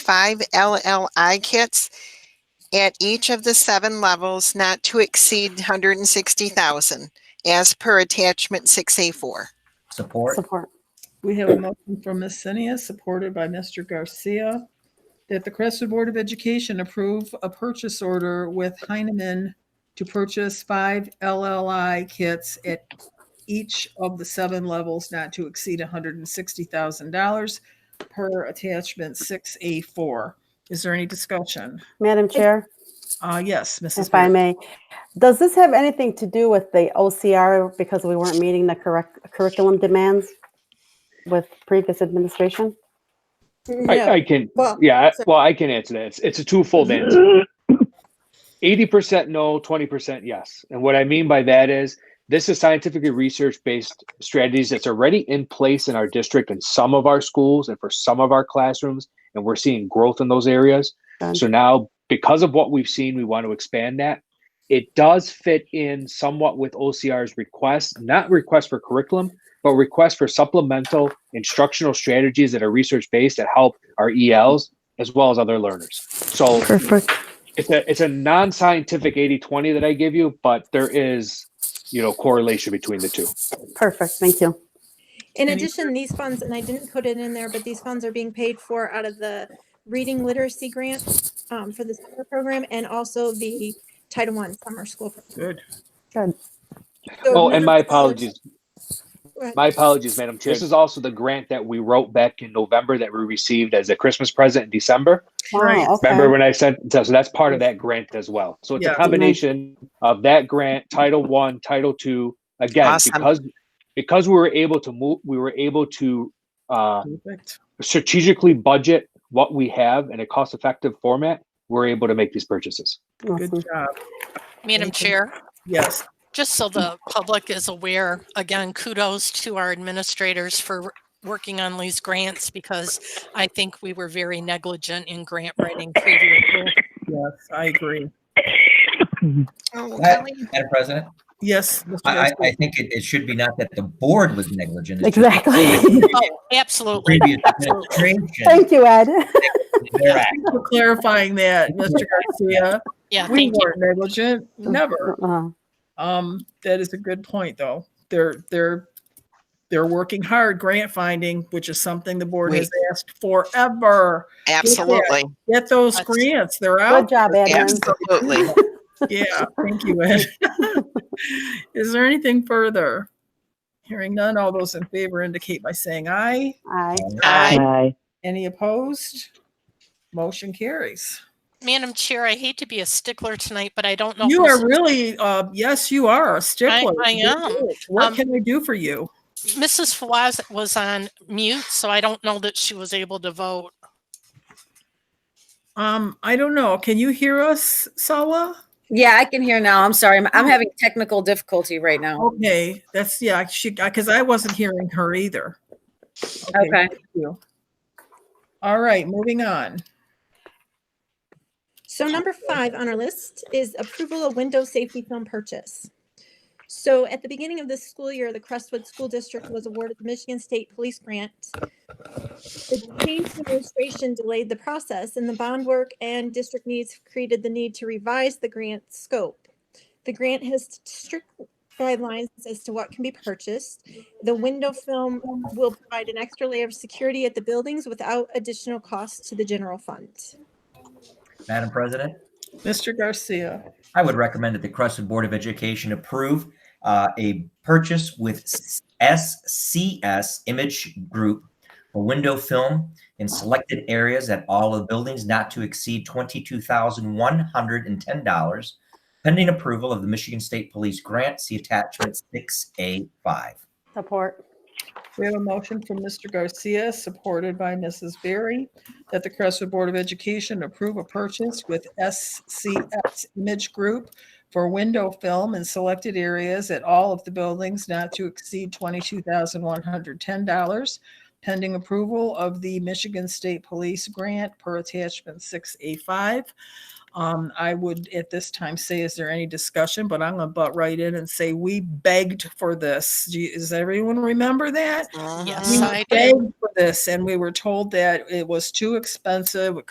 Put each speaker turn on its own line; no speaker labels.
five LLI kits at each of the seven levels not to exceed 160,000 as per attachment 6A4.
Support.
Support.
We have a motion from Ms. Senia, supported by Mr. Garcia, that the Crestwood Board of Education approve a purchase order with Heinemann to purchase five LLI kits at each of the seven levels not to exceed $160,000 per attachment 6A4. Is there any discussion?
Madam Chair,
Uh, yes, Mrs.
if I
Barry.
may, does this have anything to do with the OCR because we weren't meeting the correct curriculum demands with previous administration?
I,
No,
I can,
well,
yeah, I-
so-
well, I can answer that. It's, it's a twofold answer. Eighty percent no, twenty percent yes. And what I mean by that is, this is scientifically research-based strategies that's already in place in our district and some of our schools and for some of our classrooms, and we're seeing growth in those areas.
Done.
So now, because of what we've seen, we want to expand that. It does fit in somewhat with OCR's request, not request for curriculum, but request for supplemental instructional strategies that are research-based that help our ELs as well as other learners. So
Perfect.
it's a it's a non-scientific 80-20 that I give you, but there is you know correlation between the two.
Perfect, thank you.
In
Any-
addition, these funds, and I didn't put it in there, but these funds are being paid for out of the reading literacy grant um, for the summer program and also the Title I summer school. program.
Good.
So
Oh, and
none
my
of those-
apologies. My apologies, Madam Chair. This is also the grant that we wrote back in November that we received as a Christmas present in December.
Right.
Wow, okay.
Remember when I said so? so That's part of that grant as well. So it's
Yeah.
a combination of that grant, Title One, Title Two. Again,
Awesome.
because because we were able to move, we were able to uh,
Perfect.
strategically budget what we have in a cost-effective format. We're able to make these purchases.
Good
Awesome.
job.
Madam
Thank you.
Chair,
Yes.
just so the public is aware, again, kudos to our administrators for working on these grants because I think we were very negligent in grant writing previously.
Yes, I agree.
Oh,
That-
Kelly,
Madam President,
Yes. Mr.
I, I,
Garcia.
I think it, it should be not that the board was negligent. it's just
Exactly.
the
Oh, Absolutely.
Previous administration.
Thank you, Ed.
their act.
for clarifying that, Mr. Garcia.
Yeah,
We
thank you.
weren't negligent, never.
Uh,
Um, that is a good point, though. They're, they're, they're working hard grant finding, which is something the board has asked forever.
Absolutely,
Get those
That's-
grants, they're
Good
out.
job, Edmund.
absolutely.
Yeah, thank you, Ed. Is there anything further? Hearing none, all those in favor indicate by saying aye.
Aye.
Aye.
Aye.
Any opposed? Motion carries.
Madam Chair, I hate to be a stickler tonight, but I don't know. if
You
Ms.
are really, uh, yes, you are a stickler.
I am.
What
Um,
can we do for you?
Mrs. Fawaz was on mute, so I don't know that she was able to vote.
Um, I don't know. Can you hear us, Sawa?
Yeah, I can hear now. I'm sorry. I'm, I'm having technical difficulty right now.
Okay, that's, yeah, she, because I wasn't hearing her either.
Okay.
thank you. All right, moving on.
So number five on our list is approval of window safety film purchase. So at the beginning of this school year, the Crestwood School District was awarded the Michigan State Police Grant. The change in administration delayed the process and the bond work and district needs created the need to revise the grant scope. The grant has strict guidelines as to what can be purchased. The window film will provide an extra layer of security at the buildings without additional cost to the general fund.
Madam President,
Mr. Garcia,
I would recommend that the Crescent Board of Education approve uh, a purchase with SCS Image Group for window film in selected areas at all of the buildings not to exceed $22,110, pending approval of the Michigan State Police grant. See attachment 6A5.
Support.
we have a motion from Mr. Garcia, supported by Mrs. Berry, that the Crestwood Board of Education approve a purchase with SCX Image Group for window film in selected areas at all of the buildings not to exceed $22,110, pending approval of the Michigan State Police grant per attachment 6A5. Um, I would at this time say, is there any discussion? But I'm gonna butt right in and say, we begged for this. Do you- Does everyone remember that?
Mm-hmm.
Yes,
We
I do.
begged for this and we were told that it was too expensive, it